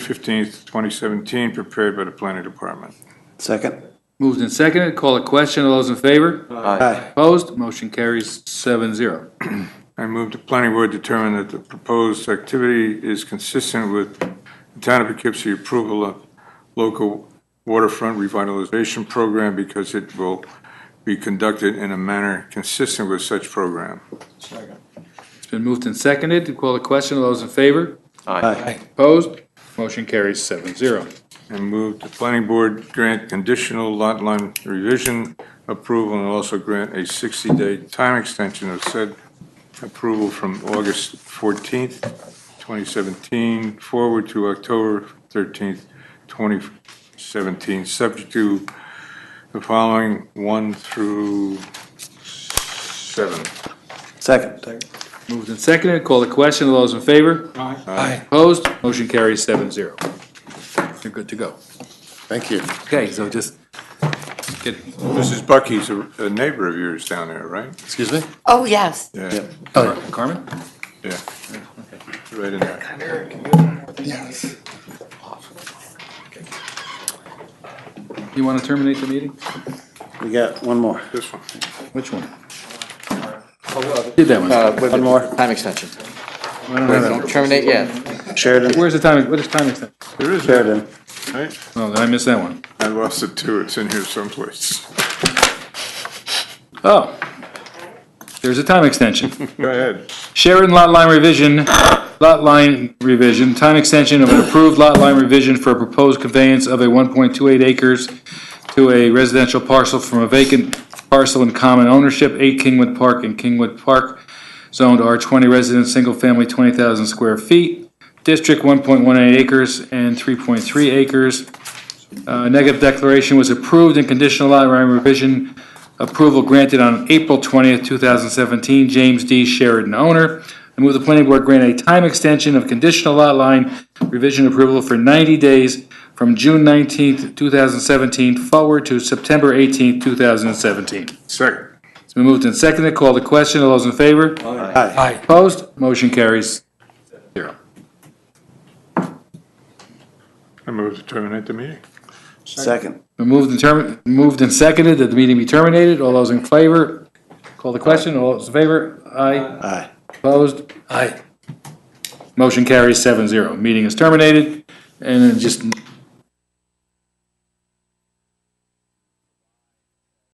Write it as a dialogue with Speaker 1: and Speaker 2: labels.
Speaker 1: fifteenth, twenty seventeen, prepared by the planning department.
Speaker 2: Second?
Speaker 3: Moved and seconded, call a question, all those in favor?
Speaker 2: Aye.
Speaker 3: Opposed, motion carries seven zero.
Speaker 1: I move the planning board determine that the proposed activity is consistent with the town of Poughkeepsie approval of local waterfront revitalization program because it will be conducted in a manner consistent with such program.
Speaker 3: It's been moved and seconded, to call a question, all those in favor?
Speaker 2: Aye.
Speaker 3: Opposed, motion carries seven zero.
Speaker 1: And move the planning board grant conditional lot line revision approval and also grant a 60-day time extension of said approval from August 14th, 2017 forward to October 13th, 2017, subject to the following 1 through 7.
Speaker 2: Second?
Speaker 3: Moved and seconded, call a question, all those in favor?
Speaker 1: Aye.
Speaker 3: Opposed, motion carries seven zero. You're good to go.
Speaker 4: Thank you.
Speaker 3: Okay, so just. Get,
Speaker 1: Mrs. Bucky's a a neighbor of yours down there, right?
Speaker 4: Excuse me?
Speaker 5: Oh, yes.
Speaker 1: Yeah,
Speaker 3: Carmen?
Speaker 1: yeah. Right in there.
Speaker 4: Yes.
Speaker 3: You want to terminate the meeting?
Speaker 2: We got one more.
Speaker 1: This one.
Speaker 3: Which one? Did that one.
Speaker 2: One more.
Speaker 4: Uh, Time extension.
Speaker 3: I don't have that.
Speaker 4: Don't terminate yet.
Speaker 2: Sheridan?
Speaker 3: Where's the time, what is time extension?
Speaker 1: There is, one,
Speaker 2: Sheridan.
Speaker 1: right?
Speaker 3: Oh, did I miss that one?
Speaker 1: I lost it too, it's in here someplace.
Speaker 3: Oh. There's a time extension.
Speaker 1: Go ahead.
Speaker 3: Sheridan Lot Line Revision, Lot Line Revision, time extension of an approved lot line revision for a proposed conveyance of a 1.28 acres to a residential parcel from a vacant parcel in common ownership, 8 Kingwood Park and Kingwood Park, zoned R20 resident, single family, 20,000 square feet, district 1.18 acres and 3.3 acres. Uh, Negative declaration was approved and conditional lot line revision Approval granted on April 20th, 2017, James D. Sheridan, owner. I move the planning board grant a time extension of conditional lot line revision approval for 90 days from June 19th, 2017 forward to September 18th, 2017.
Speaker 1: Second.
Speaker 3: It's been moved and seconded. Call the question. All those in favor?
Speaker 2: Aye.
Speaker 3: Opposed? Motion carries. Zero.
Speaker 1: I move to terminate the meeting.
Speaker 2: Second?
Speaker 3: Been Moved and term, moved and seconded that the meeting be terminated. All those in favor? Call the question. All those in favor? Aye.
Speaker 2: Aye.
Speaker 3: Opposed? Aye. Motion carries seven zero. Meeting is terminated. And then just